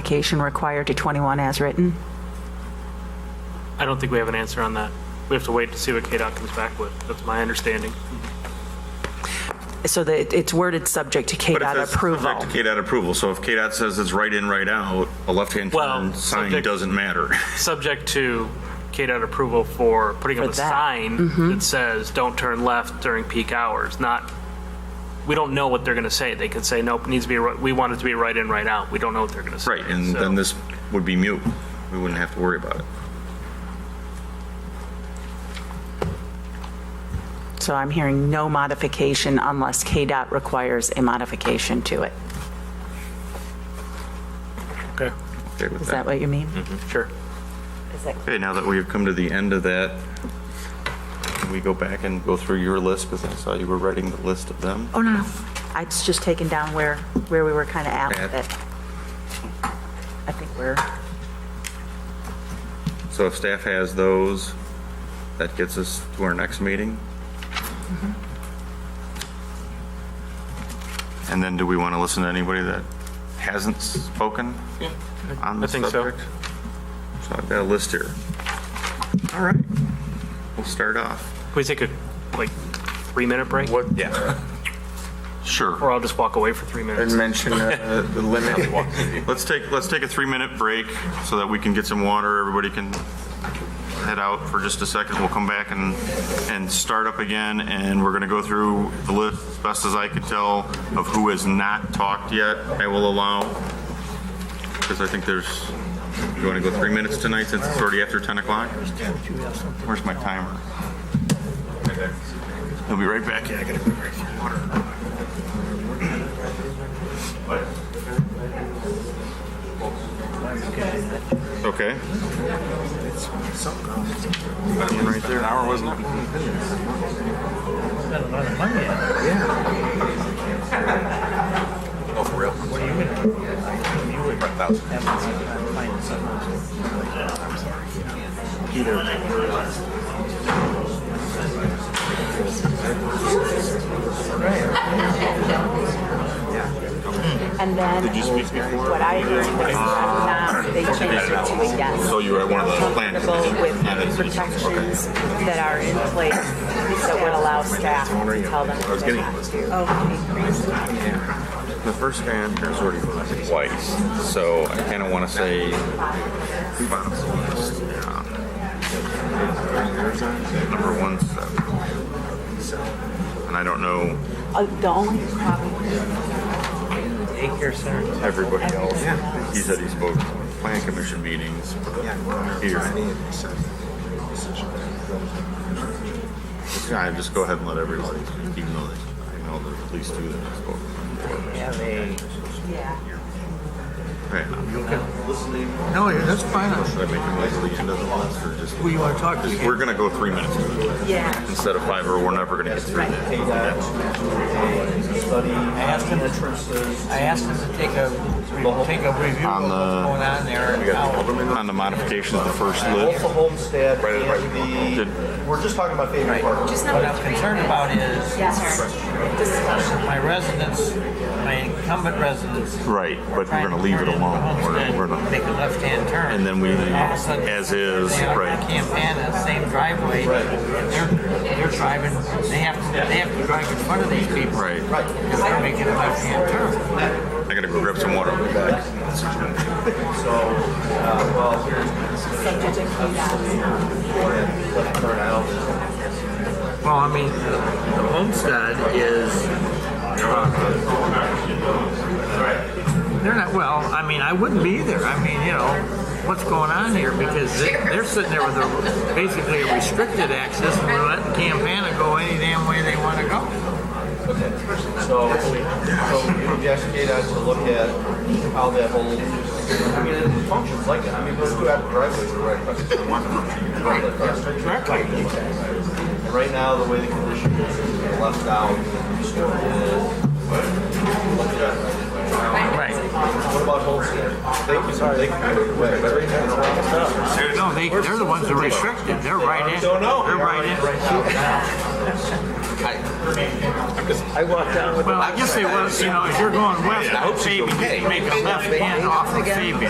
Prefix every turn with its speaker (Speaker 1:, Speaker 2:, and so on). Speaker 1: modification required to 21 as written?
Speaker 2: I don't think we have an answer on that. We have to wait to see what KDOT comes back with. That's my understanding.
Speaker 1: So that it's worded subject to
Speaker 3: But it
Speaker 1: KDOT
Speaker 3: says
Speaker 1: approval.
Speaker 3: Subject to KDOT approval, so if KDOT says it's right in, right out, a left-hand
Speaker 2: Well,
Speaker 3: turn sign
Speaker 2: subject-
Speaker 3: doesn't matter.
Speaker 2: Subject to KDOT approval for putting up
Speaker 1: For
Speaker 2: a
Speaker 1: that. Mm-hmm.
Speaker 2: sign that says, don't turn left during peak hours, not, we don't know what they're going to say. They could say, nope, needs to be, ri- we want it to be right in, right out. We don't know what they're going to say.
Speaker 3: Right, and
Speaker 2: So-
Speaker 3: then this would be mute. We wouldn't have to worry about it.
Speaker 1: So I'm hearing no modification unless KDOT requires a modification to it.
Speaker 2: Okay,
Speaker 3: Okay with
Speaker 1: Is that what you mean?
Speaker 3: Mm-hmm.
Speaker 2: sure.
Speaker 3: Okay, now that we've come to the end of that, can we go back and go through your list, because I saw you were writing the list of them.
Speaker 1: Oh, no, no. I it's just taken down where, where we were kind of at with it. I think we're,
Speaker 3: So if staff has those, that gets us to our next meeting?
Speaker 2: Mm-hmm.
Speaker 3: And then do we want to listen to anybody that hasn't spoken on the
Speaker 2: I think so.
Speaker 3: subject? So I've got a list here. All right, we'll start off.
Speaker 2: Can we take a, like, three-minute break?
Speaker 3: Yeah.
Speaker 2: Or
Speaker 3: Sure.
Speaker 2: I'll just walk away for three minutes?
Speaker 4: and mention uh, the limit.
Speaker 3: Let's take, let's take a three-minute break so that we can get some water, everybody can head out for just a second. We'll come back and, and start up again, and we're going to go through the list, as best as I could tell, of who has not talked yet. I will allow, because I think there's, you want to go three minutes tonight since it's already after 10 o'clock? Where's my timer? He'll be right back. Yeah, I gotta go grab some water. Okay. Right there, an hour, wasn't it?
Speaker 1: and then
Speaker 3: Did you speak before?
Speaker 1: what I heard was that um, they changed it to a yes.
Speaker 3: So you were at one of the
Speaker 1: I'm
Speaker 3: planned-
Speaker 1: Comfortable with
Speaker 3: Yeah, that's-
Speaker 1: the protections that are in place that would allow staff to tell them. what they have to do. Oh,
Speaker 3: The first guy on here is already voted twice, so I kind of want to say. Number one, seven. And I don't know
Speaker 1: Uh, The only problem
Speaker 3: everybody else. He said he spoke at plan commission meetings but here. Yeah, I just go ahead and let everybody, even though they, I know there's at least two that spoke.
Speaker 5: have a.
Speaker 3: Right now,
Speaker 5: No, yeah, that's fine.
Speaker 3: should I make him wait till the end of the list or just?
Speaker 5: Who you want to talk to?
Speaker 3: Just- We're gonna go three minutes
Speaker 1: Yeah.
Speaker 3: instead of five, or we're never gonna get through that.
Speaker 5: I asked him to, I asked him to take a, take a review
Speaker 3: On
Speaker 5: of
Speaker 3: the-
Speaker 5: what's going on there and how.
Speaker 3: On the modifications of the first
Speaker 6: Both the
Speaker 3: list,
Speaker 6: homestead
Speaker 3: Right, right.
Speaker 6: and
Speaker 3: Did-
Speaker 6: the, we're just talking about favorite park.
Speaker 5: What I'm concerned about is my residents, my incumbent residents.
Speaker 3: right, but we're gonna leave it alone. We're, we're
Speaker 5: Homestead, Make
Speaker 3: not,
Speaker 5: a left-hand turn.
Speaker 3: and then we,
Speaker 5: All of a sudden,
Speaker 3: as is,
Speaker 5: They are in
Speaker 3: right.
Speaker 5: Campana, same driveway. and They're, they're driving, they have, to- they have to drive in front of these people.
Speaker 3: Right.
Speaker 5: Because they're making a left-hand turn.
Speaker 3: I gotta go grab some water. I'll be back.
Speaker 5: Well, I mean, the the homestead is. They're not, well, I mean, I wouldn't be there. I mean, you know, what's going on here? Because they- they're sitting there with a, basically a restricted access and they're letting Campana go any damn way they want to go.
Speaker 6: So, so we would ask KDOT to look at how that whole, I mean, it functions like that. I mean, let's go out driveways right across the street. And Right now, the way the condition is, is left out is,
Speaker 5: Right.
Speaker 6: what about homestead? They can, they can put it away.
Speaker 5: No, they, they're the ones that are restricted. They're right in.
Speaker 6: Don't know.
Speaker 5: They're right in.
Speaker 6: Right now.
Speaker 4: I,
Speaker 7: I walked down with
Speaker 5: Well, I guess they was, you know, if you're going west,
Speaker 4: I hope she goes, hey.
Speaker 5: make a left hand off of Fabian.